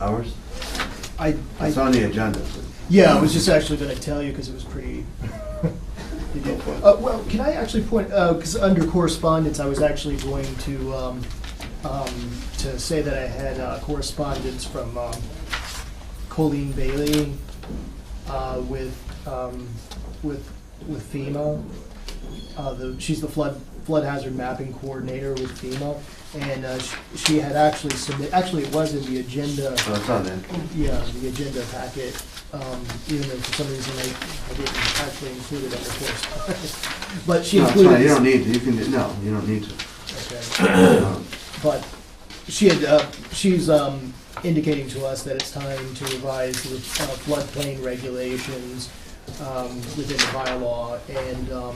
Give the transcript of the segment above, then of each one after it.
Hours? I, It's I, on the agenda. yeah, I was just actually gonna tell you, because it was pretty. it did- Uh, well, can I actually point, uh 'cause because under correspondence, I was actually going to, um, um, to say that I had uh, correspondence from, um, Colleen Bailey, uh, with, um, with, with FEMA. Uh, the, she's the flood, flood hazard mapping coordinator with FEMA, and, uh, she, she had actually submitted, actually it was in the agenda. So it's on there. Yeah, the agenda packet, um, even though for some reason I, I didn't actually include it on the course. But she No, it's fine, you don't included, need to, you can, no, you don't need to. okay, Um, but she had, uh, she's, um, indicating to us that it's time to revise the uh, floodplain regulations, um, within the bylaw, and, um,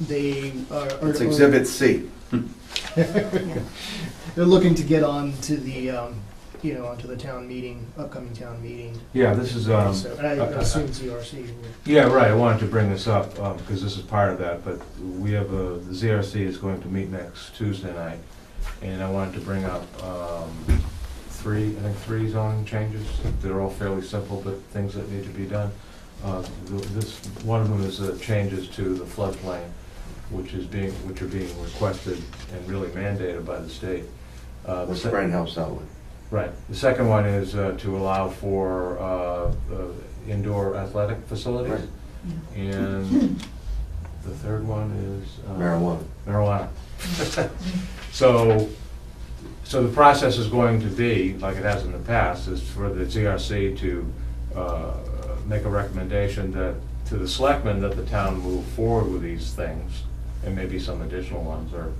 they are. are- It's Exhibit C. They're looking to get on to the, um, you know, onto the town meeting, upcoming town meeting, Yeah, this is, um, so, and I uh, uh, assume E ZRC will. yeah, right, I wanted to bring this up, um, because this is part of that, but we have a, the ZRC is going to meet next Tuesday night, and I wanted to bring up, um, three, I think three zoning changes, they're all fairly simple, but things that need to be done. Uh, th- this, one of them is the changes to the floodplain, which is being, which are being requested and really mandated by the state. Uh, the Which sec- Brian helps out with. Right. The second one is uh, to allow for uh, uh, indoor athletic facilities. And the third one is. uh, Marijuana. Marijuana. So, so the process is going to be, like it has in the past, is for the GRC to uh, make a recommendation that, to the selectmen, that the town move forward with these things, and maybe some additional ones, or,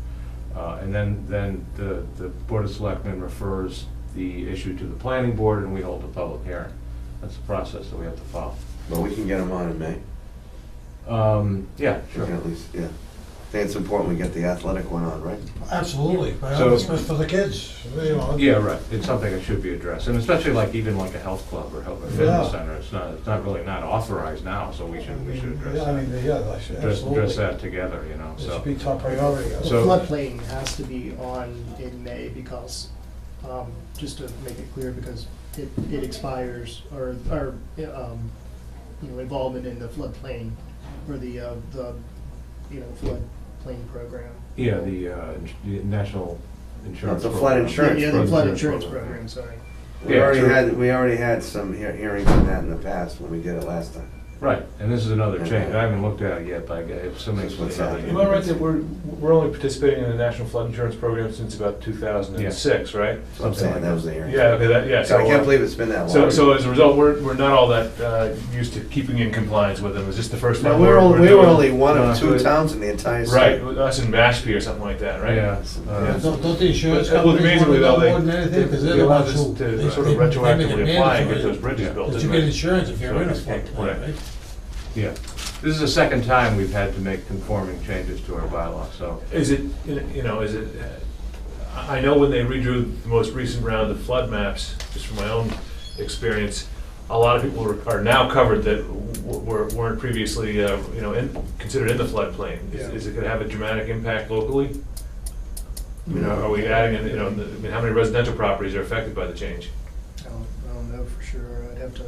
uh, and then, then the, the Board of Selectmen refers the issue to the planning board, and we hold a public hearing. That's the process that we have to follow. But we can get them on in May. Um, Yeah, We sure. can at least, yeah. I think it's important we get the athletic one on, right? Absolutely, but So- it's for the kids, you know. Yeah, right, it's something that should be addressed, and especially like, even like a health club or health or Yeah. fitness center, it's not, it's not really not authorized now, so we should, we should address Yeah, I that. mean, yeah, I should, Address, address absolutely. that together, you know, It should so, be top priority. The So- floodplain has to be on in May because, um, just to make it clear, because it, it expires, or, or, um, you know, involvement in the floodplain, or the, uh, the, you know, floodplain program. yeah, the, uh, ins- the national It's insurance. a flood program. insurance Yeah, the flood program. insurance program, sorry. We Yeah, already true. had, we already had some hea- hearings on that in the past when we did it last time. Right, and this is another change, I haven't looked at it yet, but I guess somebody's. What's happening? Am I right that we're, we're only participating in the National Flood Insurance Program since about 2006, right? So I'm saying, that was the hearing. Yeah, okay, that, yeah. So I can't uh, believe it's been that long. So, so as a result, we're, we're not all that uh, used to keeping in compliance with them. Is this the first No, time? we were, we're- only- we're we were doing- only one of No, two it- towns in the entire Right, state. with us and Mashpee or something like that, right? Yeah. Yeah. uh, Don't, don't the insurance Well, companies want amazingly to though, know they, more than they- anything, because they're they the allowed ones us who. to they- sort they- they make of it retroactively apply and get mandatory those bridges built, That didn't you get they? insurance if you're in a So, flood right. plain, right? Yeah, this is the second time we've had to make conforming changes to our bylaw, so, Is it, you know, is it, I I know when they redrew the most recent round of flood maps, just from my own experience, a lot of people are- are now covered that w- were- weren't previously, uh, you know, in- considered in the floodplain. Is Yeah. is it going to have a dramatic impact locally? I mean, No. are we adding, in, you know, the- I mean, how many residential properties are affected by the change? I don't, I don't know for sure, I'd have to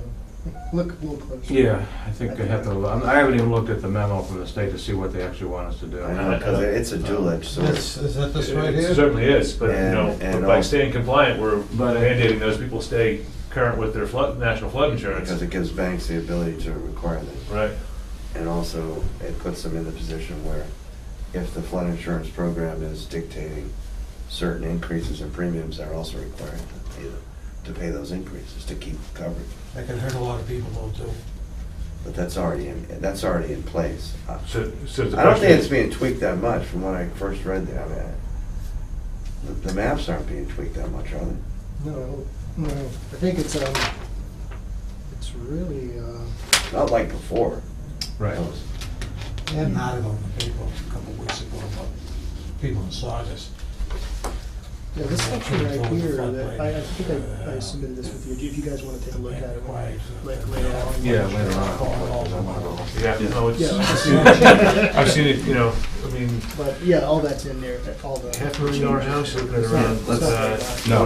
look a little closer. yeah, I think I have to, I haven't even looked at the memo from the state to see what they actually want us to do. I know, because it's a dual-edged sword. That's, is that this It- right It here? certainly is, but, you And- know, and but by all- staying compliant, we're But- mandating those people stay current with their flood, national flood insurance. Because it gives banks the ability to require them. Right. And also, it puts them in the position where if the flood insurance program is dictating certain increases in premiums, they're also required to pay, the- to pay those increases to keep coverage. That can hurt a lot of people though, too. But that's already, in that's already in place. I So, so the I don't question think it's is, being tweaked that much from when I first read that. I mean, I- the- the maps aren't being tweaked that much, are they? No, no, I think it's, um, it's really, uh, Not like before. Right. They had an article in the paper a couple of weeks ago about people in Sardis. Yeah, this section right here, that, I, I think I, I submitted this with you, if you guys wanna take a look at it, Right. like, later on. Yeah, later on. because I wanna go- Yeah, no, it's, Yeah. I've seen it, I've seen it, you know, I mean, But, yeah, all that's in there, all the. half a million dollar house, looking at It's not- around, it's let's, not uh, very much. No,